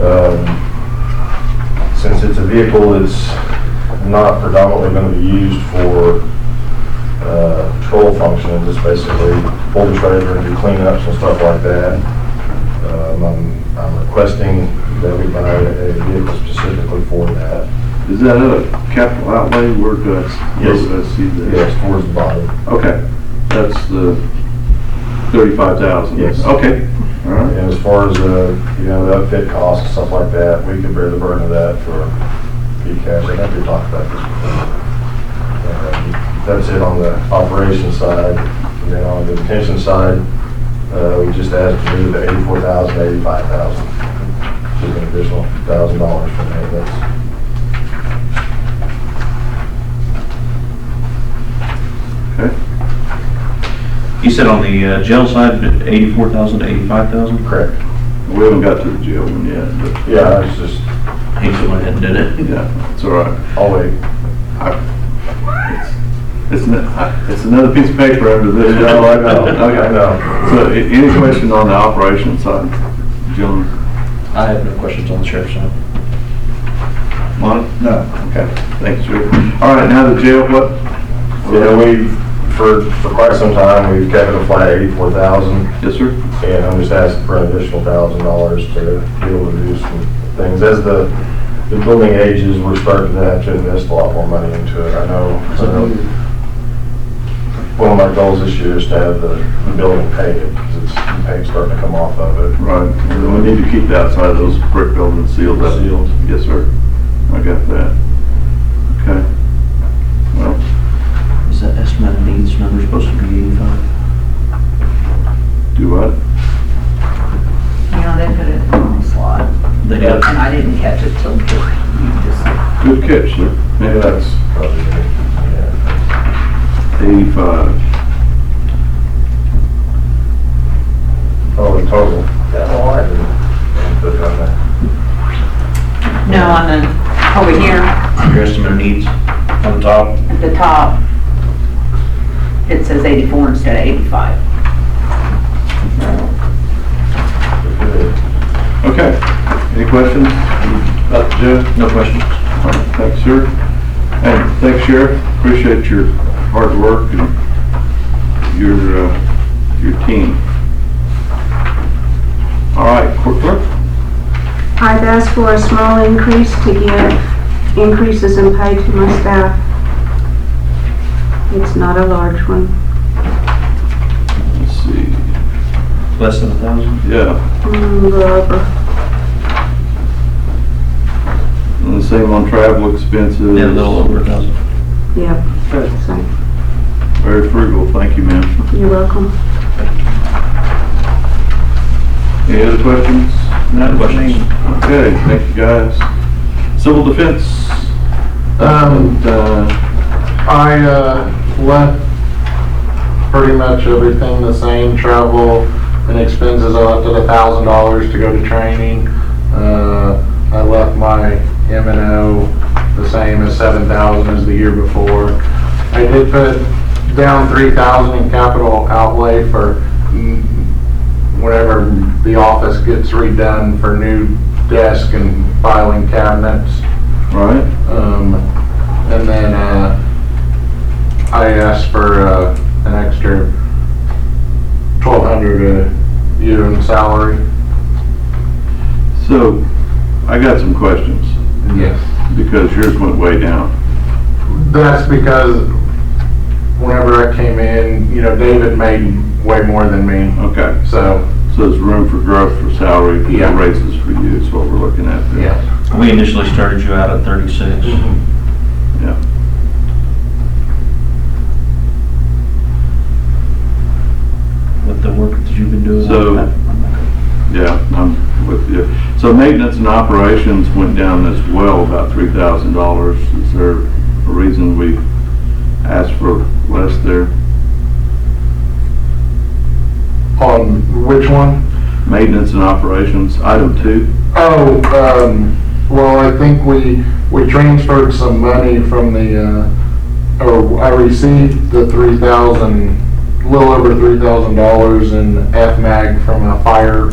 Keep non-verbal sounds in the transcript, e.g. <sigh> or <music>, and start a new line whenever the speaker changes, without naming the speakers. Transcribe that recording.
Um, Since it's a vehicle that's not predominantly going to be used for uh, patrol functions, it's basically pull the trailer and do cleanups and stuff like that. Um, I'm I'm requesting that we buy a vehicle specifically for that.
Is that a capital outlay? Where do I, where
Yes.
do I see that?
Yes, towards the bottom.
Okay, that's the thirty-five thousand?
Yes.
Okay, all right.
And as far as, uh, you know, the outfit costs and stuff like that, we could bear the burden of that for PCAS. I think we talked about this before. Um, That's it on the operations side. And then on the detention side, uh, we just asked to move the eighty-four thousand, eighty-five thousand. Just an additional thousand dollars from there. That's,
Okay.
You said on the uh, jail side, eighty-four thousand to eighty-five thousand?
correct.
We haven't got to the jail one yet, but
Yeah, it's just,
He just went ahead and did it.
yeah, it's all right.
I'll wait.
It's, n- I- it's another piece of paper under this.
No, <laughs> I know, I
Okay.
know.
So a- any question on the operations side, gentlemen?
I have no questions on the sheriff's side.
Monty? No. Okay, thanks, Joe. All right, now the jail, what?
Yeah, we, for, for quite some time, we've kept it a flat eighty-four thousand.
Yes, sir?
And I'm just asking for an additional thousand dollars to be able to do some things. As the, the building ages, we're starting to have to invest a lot more money into it. I know, I know one of my goals this year is to have the, the building painted, because it's, the paint's starting to come off of it.
Right, we need to keep the outside of those brick buildings sealed up.
Sealed.
Yes, sir. I got that. Okay. Well,
Is that estimate of needs number supposed to be eighty-five?
do what?
You know, they put it in the wrong slot,
They
and I didn't catch it till you just
Good catch, sir.
Maybe that's probably, yeah.
Eighty-five.
Oh, in total. Yeah, well, I didn't put it on there.
No, on the, over here,
Your estimate of needs on the top?
at the top, it says eighty-four instead of eighty-five.
Okay. Any questions about the jail?
No questions.
All right, Thanks, sir. Hey, thanks, Sheriff. Appreciate your hard work and your, uh, your team. All right, court clerk?
I've asked for a small increase to give increases in pay to my staff. It's not a large one.
Let's see.
Less than a thousand?
Yeah.
Mm, a little over.
And the same on travel expenses.
Yeah, a little over a thousand.
Yep. So,
Very frugal, thank you, ma'am.
you're welcome.
Any other questions?
No questions.
Okay, thank you, guys. Civil defense.
Um,
And, uh,
I, uh, left pretty much everything the same, travel and expenses, I left it a thousand dollars to go to training. Uh, I left my M and O the same as seven thousand as the year before. I did put down three thousand in capital outlay for mm, whenever the office gets redone for new desk and filing cabinets.
all right,
Um, and then, uh, I asked for, uh, an extra twelve hundred a year in salary.
so I got some questions
Yes.
because yours went way down.
That's because whenever I came in, you know, David made way more than me,
Okay,
so,
so there's room for growth for salary,
Yeah.
no raises for you is what we're looking at there.
yeah.
We initially started you out at thirty-six. With the work that you've been doing.
So-
I'm- I'm-
Yeah, I'm with you. So maintenance and operations went down as well, about three thousand dollars. Is there a reason we asked for less there?
On which one?
Maintenance and operations, item two.
Oh, um, well, I think we, we transferred some money from the, uh, or I received the three thousand, little over three thousand dollars in FMAG from a fire